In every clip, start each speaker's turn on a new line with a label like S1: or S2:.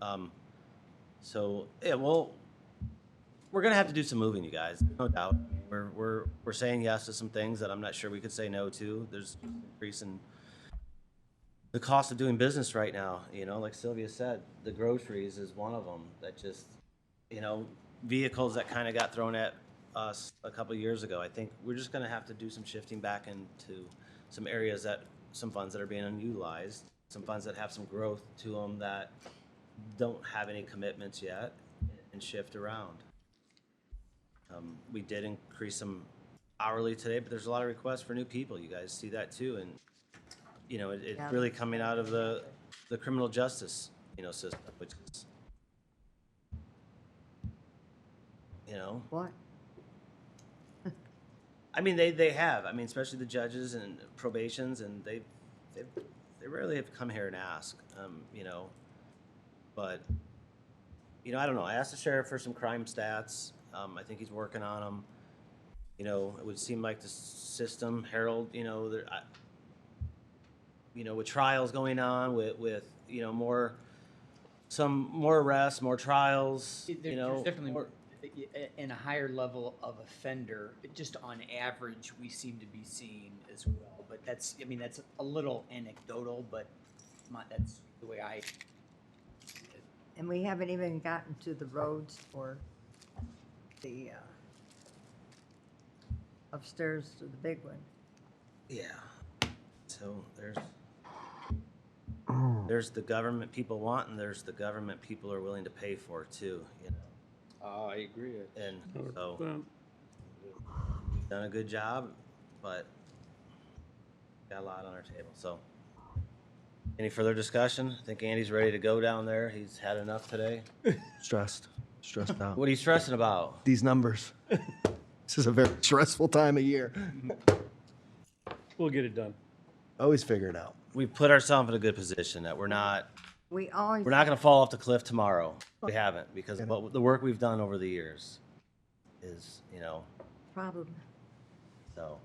S1: Um, so yeah, well, we're gonna have to do some moving, you guys, no doubt. We're we're we're saying yes to some things that I'm not sure we could say no to. There's increase in the cost of doing business right now. You know, like Sylvia said, the groceries is one of them that just, you know, vehicles that kind of got thrown at us a couple of years ago. I think we're just gonna have to do some shifting back into some areas that some funds that are being unutilized, some funds that have some growth to them that don't have any commitments yet and shift around. Um, we did increase some hourly today, but there's a lot of requests for new people. You guys see that too, and you know, it, it's
S2: Yeah.
S1: really coming out of the the criminal justice you know system, which is you know,
S2: What?
S1: I mean they they have. I mean, especially the judges and probations, and they they they rarely have come here and ask, um, you know, but you know, I don't know. I asked the sheriff for some crime stats. Um, I think he's working on them. You know, it would seem like the s- system, Harold. You know, there, I, you know, with trials going on, with with you know more, some more arrests, more trials.
S3: There-
S1: you know,
S3: there's definitely
S1: more-
S3: in a higher level of offender, just on average, we seem to be seeing as well. But that's, I mean, that's a little anecdotal, but my, that's the way I.
S2: And we haven't even gotten to the roads or the uh, upstairs to the big one.
S1: Yeah. So there's there's the government people want, and there's the government people are willing to pay for too. You know,
S4: Uh, I agree.
S1: and so
S5: Well,
S1: done a good job, but got a lot on our table. So any further discussion? I think Andy's ready to go down there. He's had enough today.
S6: Stressed, stressed out.
S1: What are you stressing about?
S6: These numbers. This is a very stressful time of year.
S5: We'll get it done.
S6: Always figure it out.
S1: We put ourselves in a good position that we're not
S2: We always.
S1: we're not going to fall off the cliff tomorrow. We haven't because what, the work we've done over the years is you know
S2: Problem.
S1: so.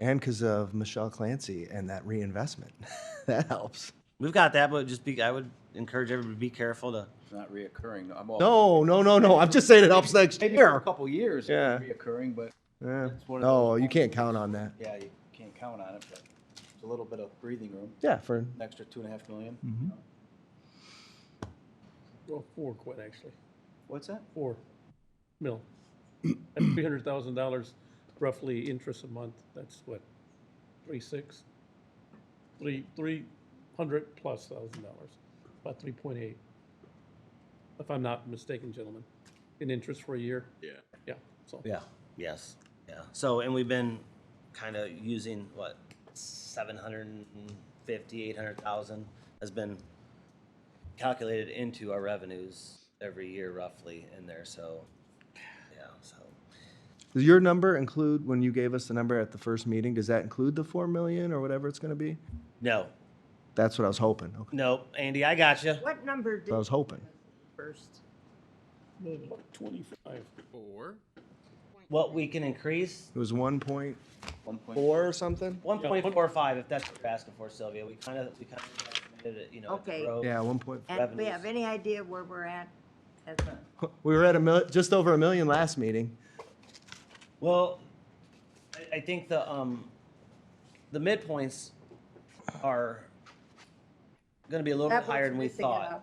S6: And because of Michelle Clancy and that reinvestment, that helps.
S1: We've got that, but just be, I would encourage everybody to be careful to,
S4: It's not reoccurring. I'm all.
S6: No, no, no, no. I'm just saying it helps next
S4: Maybe for a
S6: year.
S4: couple years.
S6: Yeah.
S4: it's Reoccurring, but
S6: Yeah.
S4: It's one of
S6: No,
S4: those
S6: you can't
S4: ones.
S6: count on that.
S4: yeah, you can't count on it, but it's a little bit of breathing room,
S6: Yeah, for
S4: an extra two and a half million.
S6: Mm-hmm.
S5: Well, four quid actually,
S4: What's that?
S5: four mil. That's three hundred thousand dollars roughly interest a month. That's what, three six? Three, three hundred plus thousand dollars, about three point eight. If I'm not mistaken, gentlemen, in interest for a year. Yeah. Yeah, so.
S1: yeah, yes, yeah. So, and we've been kind of using what, seven hundred and fifty, eight hundred thousand has been calculated into our revenues every year roughly in there, so, yeah, so.
S6: does your number include when you gave us the number at the first meeting? Does that include the four million or whatever it's going to be?
S1: No,
S6: That's what I was hoping. Okay.
S1: no, Andy, I got you.
S2: What number
S6: I was
S2: did
S6: hoping.
S2: first meeting?
S5: Twenty-five.
S1: What we can increase,
S6: It was one point
S4: One point.
S6: four or something.
S1: one point four five, if that's what you're asking for, Sylvia, we kind of, we kind of, you know, at the
S2: Okay.
S1: road.
S6: Yeah, one point.
S2: And do we have
S1: Revenues.
S2: any idea where we're at? as a-
S6: We were at a mil- just over a million last meeting.
S1: Well, I, I think the um, the midpoints are going to be a little
S2: That
S1: bit higher
S2: one's
S1: than we
S2: missing
S1: thought.
S2: out.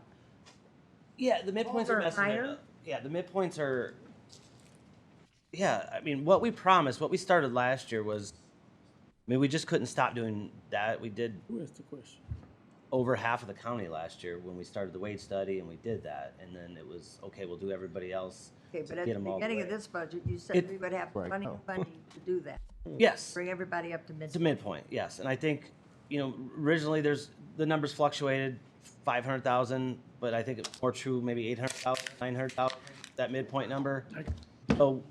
S1: Yeah, the midpoints are
S2: Over
S1: messing it
S2: higher?
S1: up. Yeah, the midpoints are. Yeah, I mean, what we promised, what we started last year was, I mean, we just couldn't stop doing that. We did
S5: Who asked the question?
S1: over half of the county last year when we started the wage study, and we did that, and then it was okay. We'll do everybody else.
S2: Okay,
S1: to
S2: but at
S1: get
S2: the
S1: 'em all
S2: beginning of
S1: way."
S2: this budget, you
S1: It-
S2: said we would have
S6: Right.
S2: plenty
S6: Oh.
S2: of funding to do that.
S1: Yes.
S2: Bring everybody up to mid.
S1: It's a midpoint, yes. And I think, you know, originally there's, the numbers fluctuated, five hundred thousand, but I think it's more true, maybe eight hundred thousand, nine hundred thousand, that midpoint number. So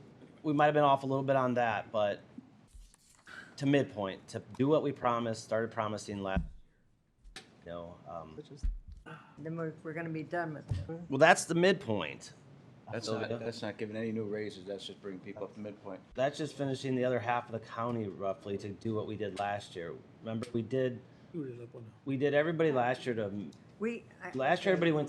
S1: we might have been off a little bit on that, but to midpoint, to do what we promised, started promising last, you know, um,
S2: Then we're, we're gonna be done with it.
S1: well, that's the midpoint.
S4: That's
S1: So
S4: not. That's not giving any new raises. That's just bringing people up to midpoint.
S1: That's just finishing the other half of the county roughly to do what we did last year. Remember, we did,
S5: Who did that one?
S1: we did everybody last year to,
S2: We. I-
S1: last year everybody went to